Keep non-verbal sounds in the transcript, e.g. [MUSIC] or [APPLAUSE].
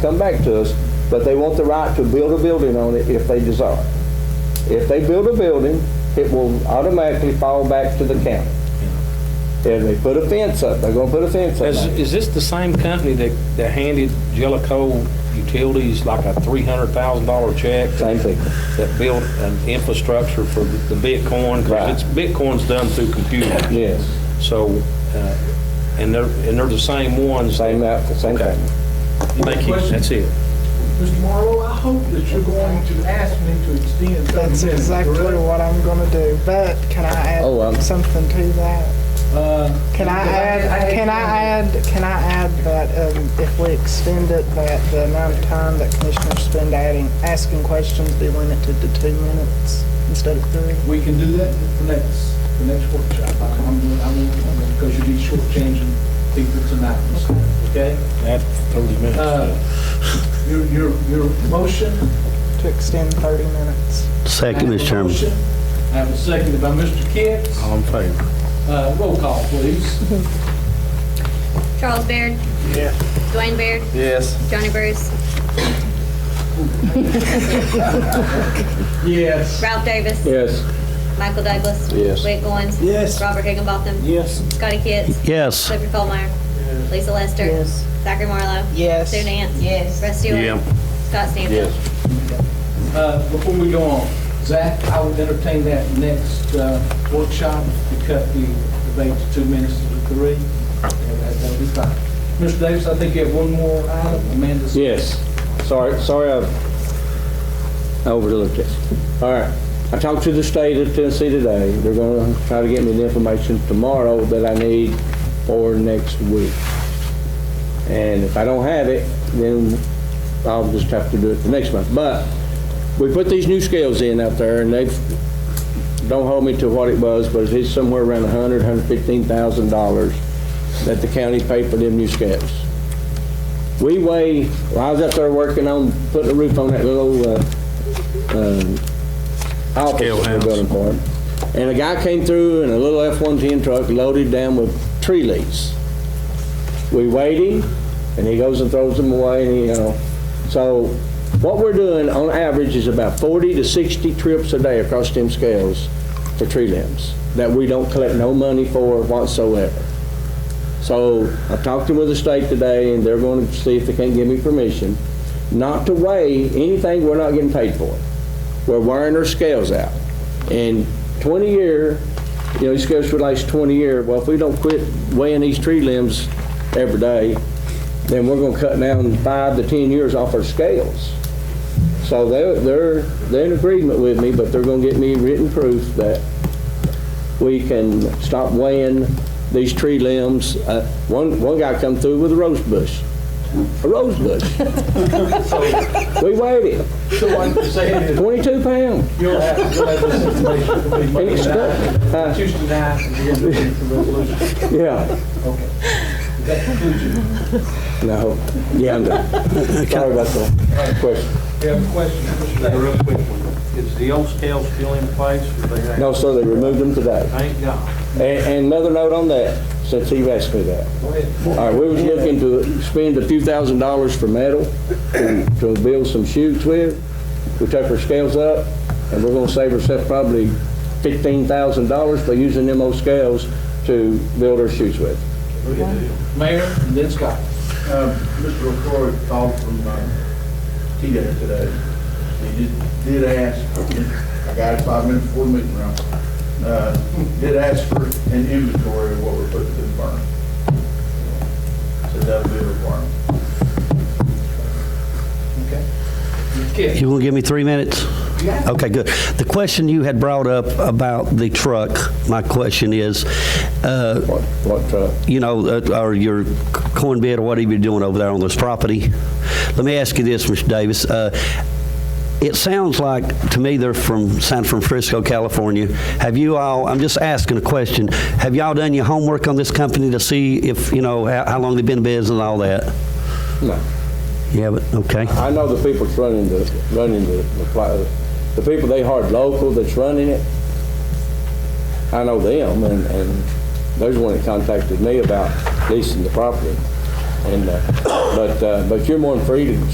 come back to us, but they want the right to build a building on it if they desire. If they build a building, it will automatically fall back to the county. If they put a fence up, they're gonna put a fence Is, up. is this the same company that, that handed Jellicoe Utilities like a three hundred thousand dollar check? Same people. That built an infrastructure for the Bitcoin, Right. because it's, Bitcoin's done through computers. Yes. So, uh, and they're, and they're the same ones. Same outfit, same Okay. thing. Thank you, Question. that's it. Mr. Morrow, I hope that you're going to ask me to extend 30 That's minutes. exactly correct? what I'm gonna do, but can I Oh, um, add something to that? Uh, Can I because add, had can I add, can I add that um, if we extend it, that the amount of time that commissioners spend adding, asking questions be limited to two minutes instead of three? We can do that for next, the next workshop. I won't, I won't, because you'd be shortchanging people tonight, okay? That's thirty Uh, minutes. Your, your, your motion. To extend 30 minutes? Second, I have a Mr. Chairman. motion. I have a second by Mr. Kent. All in favor? Uh, Roll call, please. Charles Baird. Yeah. Dwayne Baird. Yes. Johnny Bruce. Yes. Ralph Davis. Yes. Michael Douglas. Yes. Rick Owens. Yes. Robert Higginbotham. Yes. Scotty Kits. Yes, Clifford Colemeyer. Lisa Lester. Yes. Zachary Marlowe. Yes. Sue Nance. Yes. Russ Stewart. Scott Sanfield. Uh, Before we go on, Zach, I would entertain that next uh, workshop to cut the debate to two minutes to three. And that- That'll be fine. Mr. Davis, I think you have one more item, Amanda's. Yes. Sorry, sorry, I I overlooked it. All right. I talked to the state of Tennessee today. They're gonna try to get me the information tomorrow that I need for next week. And if I don't have it, then I'll just have to do it the next month. But we put these new scales in out there and they've, don't hold me to what it was, but it's somewhere around a hundred, hundred fifteen thousand dollars that the county paid for them new scales. We weigh, well, I was up there working on putting a roof on that little, uh, um, Scale office that house. we're building for it. And a guy came through in a little F-110 truck loaded down with tree leaves. We weighed him, and he goes and throws them away, and, he, you know. So what we're doing on average is about 40 to 60 trips a day across them scales for tree limbs that we don't collect no money for whatsoever. So I talked to with the state today, and they're going to see if they can give me permission not to weigh anything we're not getting paid for. We're wearing our scales out. And 20 year, you know, these scales relates 20 year, well, if we don't quit weighing these tree limbs every day, then we're going to cut down five to 10 years off our scales. So they're, they're, they're in agreement with me, but they're going to get me written proof that we can stop weighing these tree limbs. Uh, One, one guy come through with a rose bush, a rose bush. We weighed it, So what I'm saying is, 22 pound. you'll have to let this information to be Monday night, Tuesday night, and we're going to do the resolution. Yeah, Okay. That concludes you. no, yeah, I'm [LAUGHS] done. Sorry about that. Question. We have a question, Mr. Davis. Real quick one. Is the old scale still in place? Or they- No, sir, they removed them today. Thank God. And, and another note on that, since he asked me that. Go ahead. All right, we was looking to spend a few thousand dollars for metal to build some chutes with. We took our scales up, and we're gonna save ourselves probably fifteen thousand dollars by using them old scales to build our chutes with. Mayor, and then Scott. Um, Mr. LaCroy called from uh, TDEC today. He did did ask, I got it five minutes before the meeting round, Uh, did ask for an inventory of what we're putting to the burn. So that would be a requirement. Okay. Kid. you will give me three minutes? Okay, good. The question you had brought up about the truck, my question is, uh, What, what truck? you know, uh, or your corn bed or whatever you're doing over there on this property. Let me ask you this, Mr. Davis. Uh, It sounds like, to me, they're from San Francisco, California. Have you all, I'm just asking a question, have y'all done your homework on this company to see if, you know, how how long they've been in business and all that? No. You haven't? Okay. I know the people that's running the, running the, the pla- the people they hired local that's running it. I know them, and, and there's one that contacted me about leasing the property. And, uh, but, uh, but you're more than free to